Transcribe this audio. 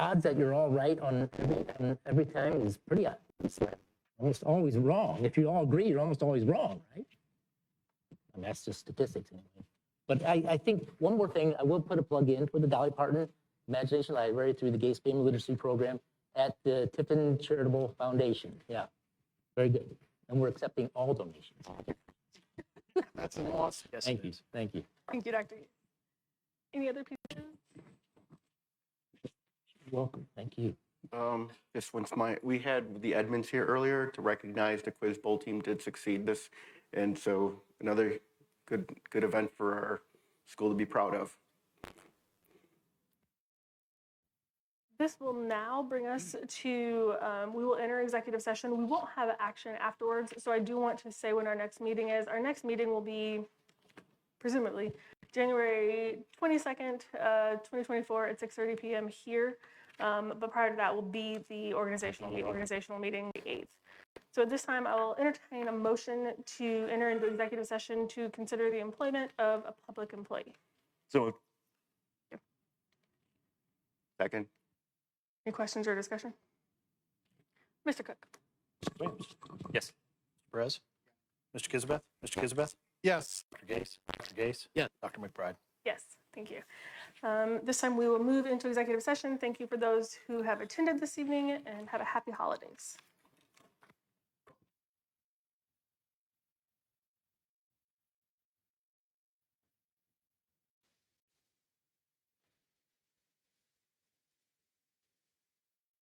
odds that you're all right on every, on every time is pretty uh, slim. Almost always wrong. If you all agree, you're almost always wrong, right? I mean, that's just statistics anyway. But I, I think one more thing, I will put a plug in for the Dolly Parton Imagination Library through the Gay Spam Literacy Program at the Tiffin Charitable Foundation. Yeah, very good. And we're accepting all donations. That's an awesome. Yes, Thank you, thank you. Thank you, Dr. Gates. Any other people? Welcome. Thank you. Um, this one's my, we had the admins here earlier to recognize the Quiz Bowl team did succeed this. And so another good, good event for our school to be proud of. This will now bring us to, um, we will enter executive session. We won't have action afterwards, so I do want to say when our next meeting is. Our next meeting will be presumably January 22nd, uh, 2024 at 6:30 PM here. Um, But prior to that will be the organizational, the organizational meeting, the 8th. So at this time, I will entertain a motion to enter into executive session to consider the employment of a public employee. So. Second, Any questions or discussion? Mr. Cook? Yes. Perez? Mr. Kizabeth? Mr. Kizabeth? Yes. Dr. Gase? Dr. Gase? Yes. Dr. McBride? Yes, thank you. Um, This time, we will move into executive session. Thank you for those who have attended this evening and have a happy holidays.